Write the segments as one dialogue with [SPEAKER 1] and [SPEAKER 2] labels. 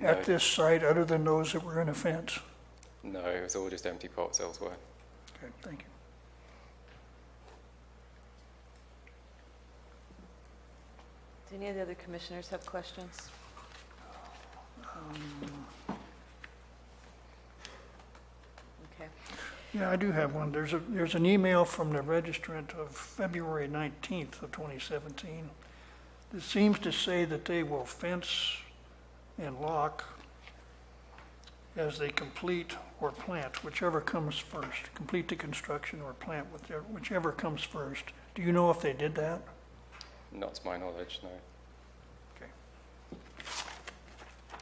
[SPEAKER 1] at this site other than those that were in a fence?
[SPEAKER 2] No, it was all just empty pots elsewhere.
[SPEAKER 1] Okay, thank you.
[SPEAKER 3] Do any of the other commissioners have questions? Okay.
[SPEAKER 1] Yeah, I do have one. There's a, there's an email from the registrant of February 19th of 2017 that seems to say that they will fence and lock as they complete or plant, whichever comes first, complete the construction or plant, whichever- whichever comes first. Do you know if they did that?
[SPEAKER 2] Not to my knowledge, no.
[SPEAKER 1] Okay.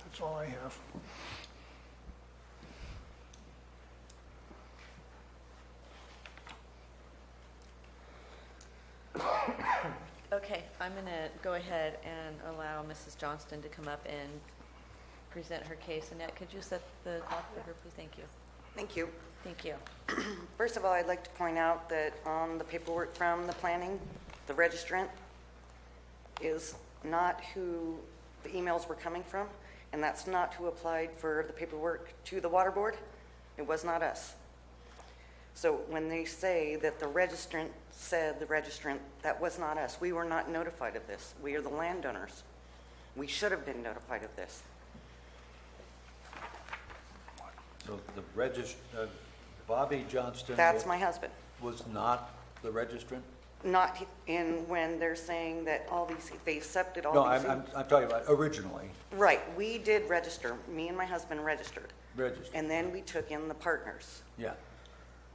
[SPEAKER 1] That's all I have.
[SPEAKER 3] Okay, I'm going to go ahead and allow Mrs. Johnston to come up and present her case. Annette, could you set the clock for her, please? Thank you.
[SPEAKER 4] Thank you.
[SPEAKER 3] Thank you.
[SPEAKER 4] First of all, I'd like to point out that on the paperwork from the planning, the registrant is not who the emails were coming from, and that's not who applied for the paperwork to the water board. It was not us. So when they say that the registrant said the registrant, that was not us. We were not notified of this. We are the landowners. We should have been notified of this.
[SPEAKER 5] So the regist, uh, Bobby Johnston.
[SPEAKER 4] That's
[SPEAKER 5] wa-
[SPEAKER 4] my husband.
[SPEAKER 5] Was not the registrant?
[SPEAKER 4] Not in when they're saying that all these, they accepted all
[SPEAKER 5] No,
[SPEAKER 4] these.
[SPEAKER 5] I'm, I'm, I'm talking about originally
[SPEAKER 4] Right, we did register, me and my husband registered.
[SPEAKER 5] registered,
[SPEAKER 4] And then we took in the partners.
[SPEAKER 5] yeah.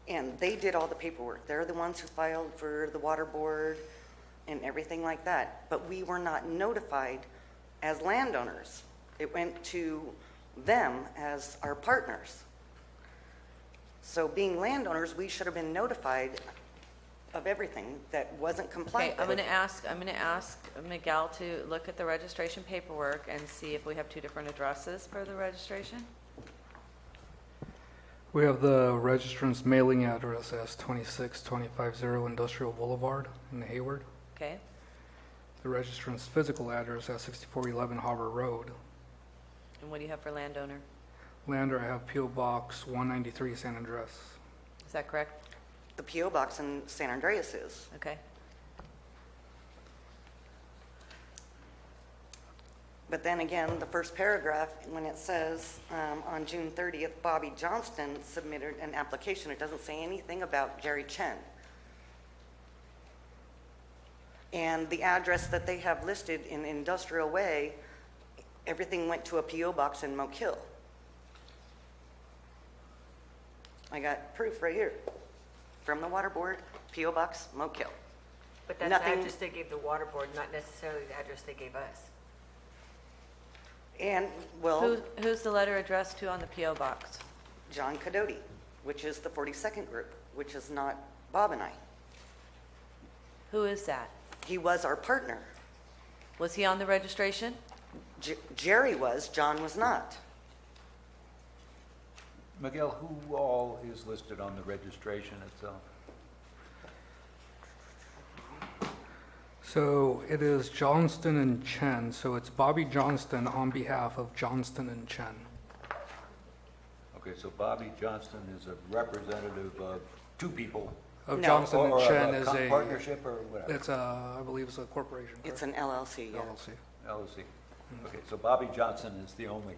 [SPEAKER 4] And they did all the paperwork. They're the ones who filed for the water board and everything like that. But we were not notified as landowners. It went to them as our partners. So being landowners, we should have been notified of everything that wasn't compliant.
[SPEAKER 3] Okay, I'm going to ask, I'm going to ask Miguel to look at the registration paperwork and see if we have two different addresses for the registration.
[SPEAKER 6] We have the registrant's mailing address as 26250 Industrial Boulevard in Hayward.
[SPEAKER 3] Okay?
[SPEAKER 6] The registrant's physical address as 6411 Harbor Road.
[SPEAKER 3] And what do you have for landowner?
[SPEAKER 6] Lander, I have PO Box 193 San Andres.
[SPEAKER 3] Is that correct?
[SPEAKER 4] The PO box in San Andreas is.
[SPEAKER 3] Okay?
[SPEAKER 4] But then again, the first paragraph, when it says, um, on June 30th, Bobby Johnston submitted an application, it doesn't say anything about Jerry Chen. And the address that they have listed in Industrial Way, everything went to a PO box in Moke Hill. I got proof right here, from the Water Board, PO box, Moke Hill.
[SPEAKER 7] But that's the
[SPEAKER 4] Nothing-
[SPEAKER 7] address they gave the water board, not necessarily the address they gave us.
[SPEAKER 4] And, well.
[SPEAKER 3] Who, who's the letter addressed to on the PO box?
[SPEAKER 4] John Cadoti, which is the 42nd group, which is not Bob and I.
[SPEAKER 3] Who is that?
[SPEAKER 4] He was our partner.
[SPEAKER 3] Was he on the registration?
[SPEAKER 4] J- Jerry was, John was not.
[SPEAKER 5] Miguel, who all is listed on the registration itself?
[SPEAKER 6] So it is Johnston and Chen, so it's Bobby Johnston on behalf of Johnston and Chen.
[SPEAKER 5] Okay, so Bobby Johnston is a representative of two people.
[SPEAKER 6] Of
[SPEAKER 4] No.
[SPEAKER 6] Johnston
[SPEAKER 5] or
[SPEAKER 6] and
[SPEAKER 5] of
[SPEAKER 6] Chen
[SPEAKER 5] a
[SPEAKER 6] is
[SPEAKER 5] co-
[SPEAKER 6] a.
[SPEAKER 5] Partnership or whatever,
[SPEAKER 6] It's a, I believe it's a corporation,
[SPEAKER 4] It's
[SPEAKER 6] correct?
[SPEAKER 4] an LLC, yeah.
[SPEAKER 6] LLC.
[SPEAKER 5] LLC.
[SPEAKER 6] Mm.
[SPEAKER 5] Okay, so Bobby Johnson is the only,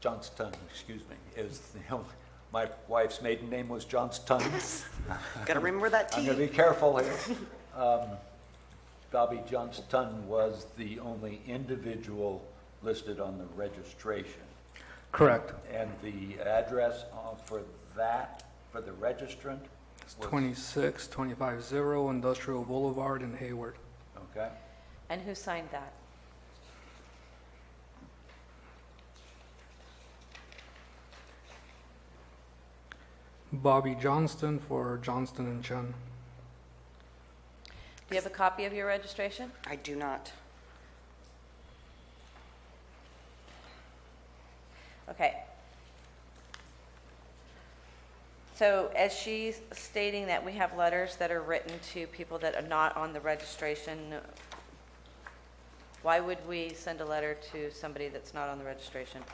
[SPEAKER 5] Johnston, excuse me, is the only, my wife's maiden name was Johnston.
[SPEAKER 4] Got to remember that
[SPEAKER 5] I'm going to
[SPEAKER 4] T.
[SPEAKER 5] be careful here. Um, Bobby Johnston was the only individual listed on the registration.
[SPEAKER 6] Correct.
[SPEAKER 5] And the address uh, for that, for the registrant?
[SPEAKER 6] It's
[SPEAKER 5] was-
[SPEAKER 6] 26250 Industrial Boulevard in Hayward.
[SPEAKER 5] Okay.
[SPEAKER 3] And who signed that?
[SPEAKER 6] Bobby Johnston for Johnston and Chen.
[SPEAKER 3] Do you have a copy of your registration?
[SPEAKER 4] I do not.
[SPEAKER 3] Okay. So as she's stating that we have letters that are written to people that are not on the registration, why would we send a letter to somebody that's not on the registration?